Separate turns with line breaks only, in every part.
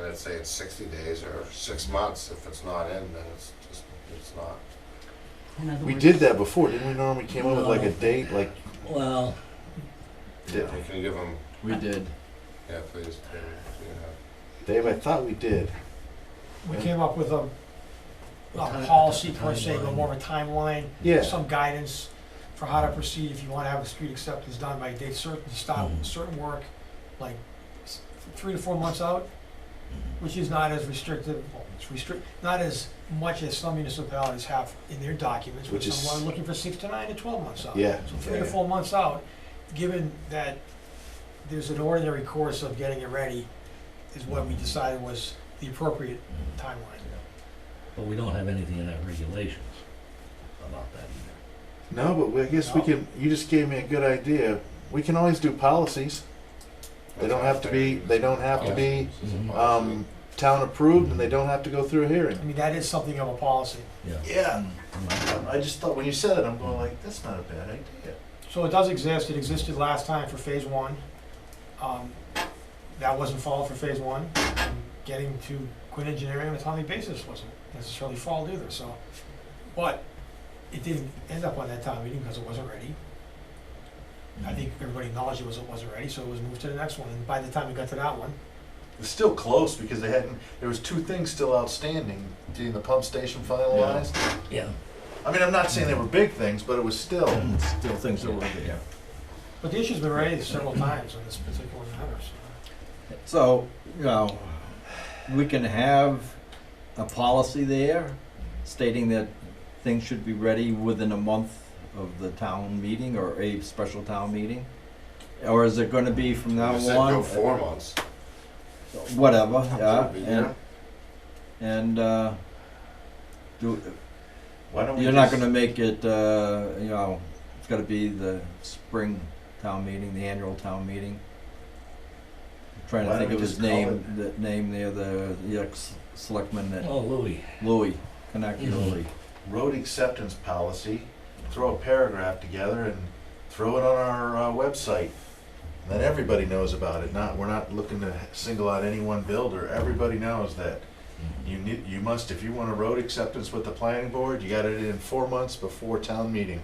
I'd say it's sixty days or six months. If it's not in, then it's just, it's not.
In other
We
words-
did that before, didn't we, Norm? We came up with like a
No.
date, like
Well,
Yeah.
You can give them,
We did.
yeah, please, David, do you have-
Dave. I thought we did.
We came up with a,
What
a
ti-
policy per se,
timeline?
but more of a timeline,
Yeah.
some guidance for how to proceed if you want to have a street acceptance done by a date certain, to stop
Mhm.
certain work, like s- three to four months out, which is not as restrictive, well, it's restrict, not as much as some municipalities have in their documents, which
Which is-
some are looking for six to nine to twelve months out.
Yeah.
So three to
Yeah.
four months out, given that there's an ordinary course of getting it ready, is what we decided was the appropriate timeline.
but we don't have anything in our regulations about that either.
No, but we, I guess we
No.
can. You just gave me a good idea. We can always do policies. They don't have to be. They don't have to be um, town approved, and they don't have to go through a hearing.
I mean, that is something of a policy.
Yeah.
Yeah.
Mm.
I just thought when you said it, I'm going like, that's not a bad idea.
So it does exist, it existed last time for phase one. Um, That wasn't followed for phase one. Getting to Quinn Engineering on a timely basis wasn't necessarily followed either, so. But it didn't end up on that town meeting because it wasn't ready. I think everybody acknowledged it was, it wasn't ready, so it was moved to the next one, and by the time we got to that one,
It's still close because they hadn't. There was two things still outstanding: getting the pump station finalized.
Yeah.
I mean, I'm not saying they were big things, but it was still.
It's Still things that were there.
but the issue's been raised several times on this particular matter, so.
So, you know, we can have a policy there stating that things should be ready within a month of the town meeting or a special town meeting? Or is it gonna be from now
You said go
on,
four months.
whatever, yeah,
Yeah.
and, and, uh, do,
Why don't we?
you're not
just-
gonna make it, uh, you know, it's gotta be the spring town meeting, the annual town meeting. I'm Trying
Why
to think
don't
of
we
his
just call
name, the name there, the, the ex-selectman that,
Oh, Louis,
Louis, Kanaki
Mhm.
Louis.
road acceptance policy, throw a paragraph together and throw it on our uh, website. And then everybody knows about it. Not, we're not looking to single out any one builder. Everybody knows that
Mm-hmm.
you need, you must, if you want a road acceptance with the planning board, you got it in four months before town meeting.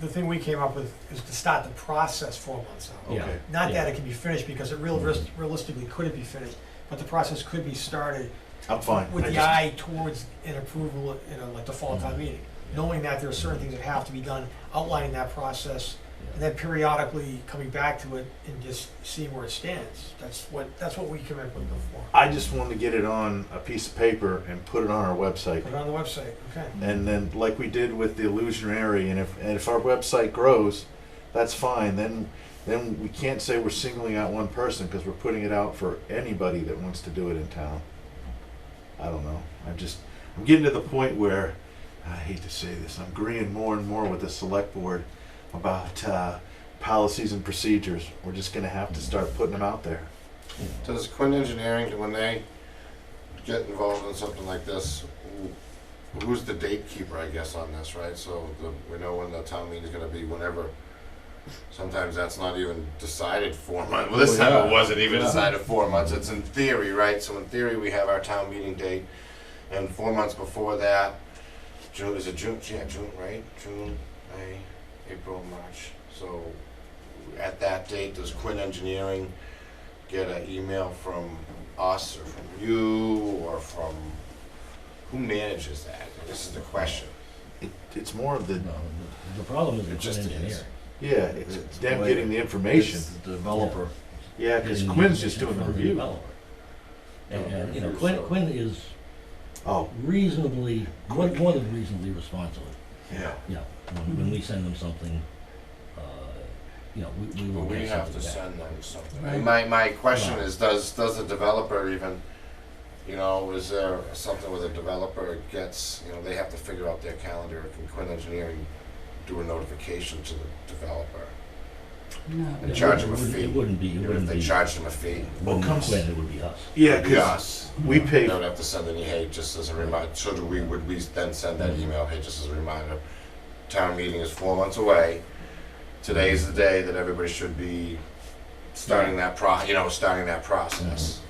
The thing we came up with is to start the process four months out.
Yeah.
Okay.
Not that
Yeah.
it can be finished, because it real, realis- realistically couldn't be finished, but the process could be started
I'm fine.
with
I
the
just- Mm-hmm.
eye towards an approval in a, like the fall town meeting. Knowing that there are certain things that have to be done, outlining that process, and then periodically coming back to it and just seeing where it stands. That's what, that's what we came up with before.
I just wanted to get it on a piece of paper and put it on our website.
Put it on the website, okay.
And then, like we did with the illusionary, and if and if our website grows, that's fine. Then, then we can't say we're singling out one person because we're putting it out for anybody that wants to do it in town. I don't know. I'm just I'm getting to the point where I hate to say this. I'm agreeing more and more with the select board about uh, policies and procedures. We're just gonna have to start putting them out there.
Does Quinn Engineering, when they get involved in something like this, who- who's the date keeper, I guess, on this, right? So the, we know when the town meeting's gonna be, whenever. Sometimes that's not even decided four months. Well, this
Well,
time it
yeah.
wasn't even
Yeah.
decided four months. It's in theory, right? So in theory, we have our town meeting date, and four months before that, June, is it June? Yeah, June, right? June, May, April, March. So at that date, does Quinn Engineering get an email from us or from you or from, who manages that? This is the question.
It, it's more of
no,
the
the- the problem is
It
with
just is.
engineering.
yeah. It's,
It's
them
way-
getting the information.
It's the developer.
Yeah, because
Getting the
Quinn's just
information
doing the
from
review.
developer. And,
Doing the
and, you know,
review,
Quinn,
so-
Quinn is
Oh,
reasonably, more more than reasonably responsible.
yeah.
Yeah, Um, when, when we send them something, uh, you know, we, we
But
will
we
get
have to
something back.
send them something.
Right.
My, my question
Right.
is, does, does the developer even, you know, is there something where the developer gets, you know, they have to figure out their calendar? Can Quinn Engineering do a notification to the developer?
No.
And
It
charge them a
wouldn't-
fee.
It wouldn't be, it
Even if
wouldn't be,
they
it
charge them a fee?
wouldn't be
comes-
Quinn, it would be us.
Yeah,
Be
because
us.
we
They
pay,
don't have to send any, hey, just as a reminder, so do we, would we then send that email, hey, just as a reminder, town meeting is four months away. Today is the day that everybody should be starting that pro, you know, starting that process.